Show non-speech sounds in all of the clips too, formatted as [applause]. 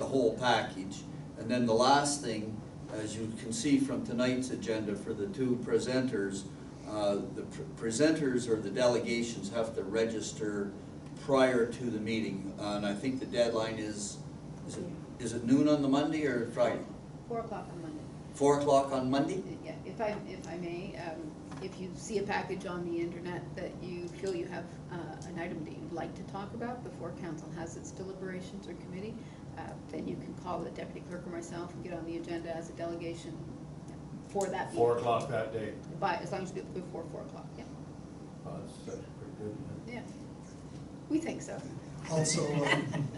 whole package. And then the last thing, as you can see from tonight's agenda for the two presenters, uh, the pr- presenters or the delegations have to register prior to the meeting. Uh, And I think the deadline is, is it- is it noon on the Monday or Friday? Four o'clock on Monday. Four o'clock on Monday? Yeah, if I, if I may, um, if you see a package on the internet that you feel you have, uh, an item that you'd like to talk about before council has its deliberations or committee, uh, then you can call the deputy clerk or myself and get on the agenda as a delegation for that meeting. Four o'clock that day. By, as long as it's before four o'clock, yeah, Oh, that's- that's pretty good, isn't it? yeah. We think so. Also, um,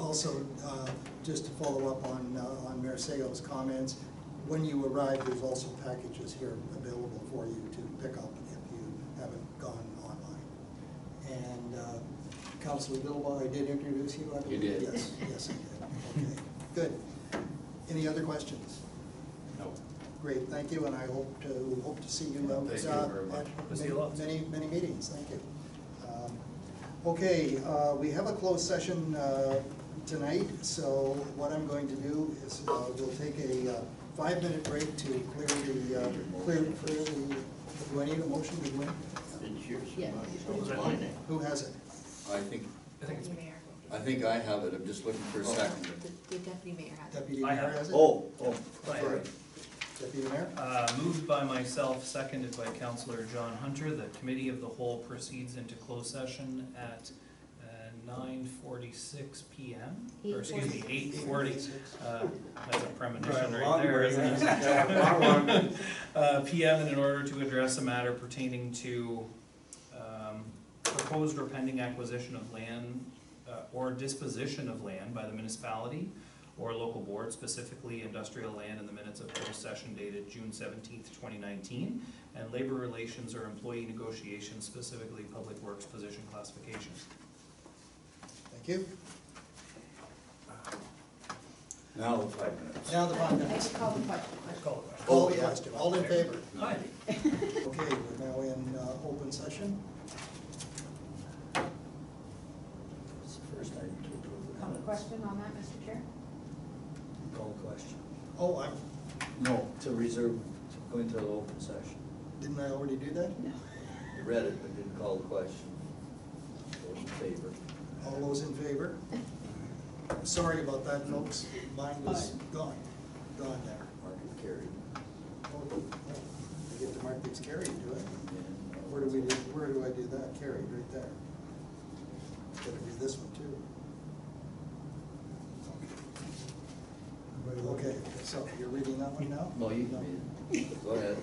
also, uh, just to follow up on, uh, on Mayor Seo's comments, when you arrive, there's also packages here available for you to pick up if you haven't gone online. And uh, Councilor Bilbao, I did introduce you, I believe? You did. Yes, yes, I did. Okay, good. Any other questions? No. Great, thank you, and I hope to, hope to see you out. Thank you uh, very much. at We'll see you lots. Many, many meetings, thank you. Um, Okay, uh, we have a closed session uh, tonight, so what I'm going to do is uh, we'll take a uh, five-minute break to clear the, uh, clear, clear the, do I need a motion? Do we- Yeah. Oh, Who has it? I think, Deputy Mayor. I think I have it, I'm just looking for a second. The the Deputy Mayor has it. Deputy I Mayor have it. has it? Oh, oh, Right. sorry. Deputy Mayor? Uh, Moved by myself, seconded by Counselor John Hunter, the committee of the whole proceeds into closed session at uh, nine forty-six PM, or excuse me, eight forty. Uh, That's a premonition right there, isn't it? [laughs] Uh, PM and in order to address a matter pertaining to um, proposed or pending acquisition of land uh, or disposition of land by the municipality or local board, specifically industrial land in the minutes of closed session dated June seventeenth, twenty nineteen, and labor relations or employee negotiations, specifically public works position classifications. Thank you. Now the five minutes. Now the five I minutes. just called the question. All the question, all in favor? Aye. Okay, we're now in uh, open session. It's the first item to approve the Call the minutes. question on that, Mr. Chair? Call question. Oh, I, No, to reserve, to go into the open session. didn't I already do that? No. You read it, but didn't call the question. Those in favor? All those in favor? Sorry about that, folks. Mine was Aye. gone, gone there. Mark it carried. Oh, I get to mark these carried, do I? And, uh, Where do we, do? where do I do that? Carried, right there. Gotta do this one too. Okay, so you're reading that one now? No, you can read it. Go ahead.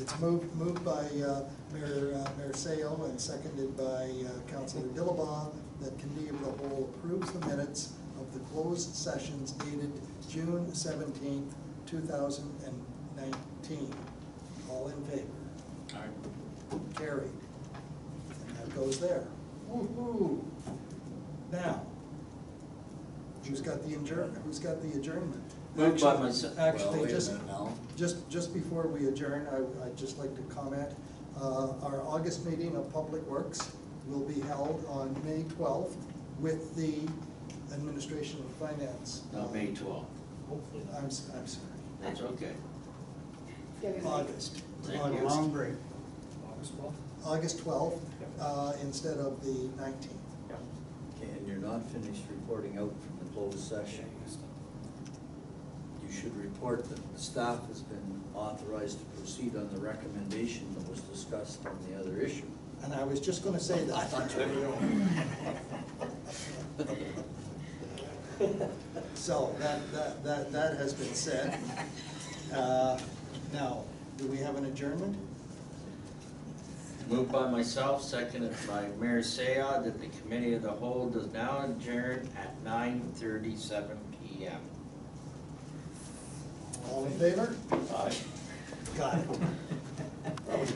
It's moved, moved by uh, Mayor, uh, Mayor Sale and seconded by uh, Councilor Dillabaugh that committee of the whole approves the minutes of the closed sessions dated June seventeenth, two thousand and nineteen. All in favor? Carried. And that goes there. Woo-hoo. Now, who's got the adjournment? Who's got the adjournment? Moved by Actually- myself. Well, Actually, wait a just, minute now. just, just before we adjourn, I, I'd just like to comment, uh, our August meeting of Public Works will be held on May twelfth with the Administration and Finance. Oh, No, May twelfth, I'm, s- I'm sorry, that's okay. August. Thank you. August. break. August twelfth, uh, instead of the nineteenth. And you're not finished reporting out from the closed session. You should report that the staff has been authorized to proceed on the recommendation that was discussed on the other issue. And I was just gonna say that. [laughs] So that, that, that, that has been said. Uh, Now, do we have an adjournment? Moved by myself, seconded by Mayor Seah, that the committee of the whole does now adjourn at nine thirty-seven P M. All in favor? Aye. Got it.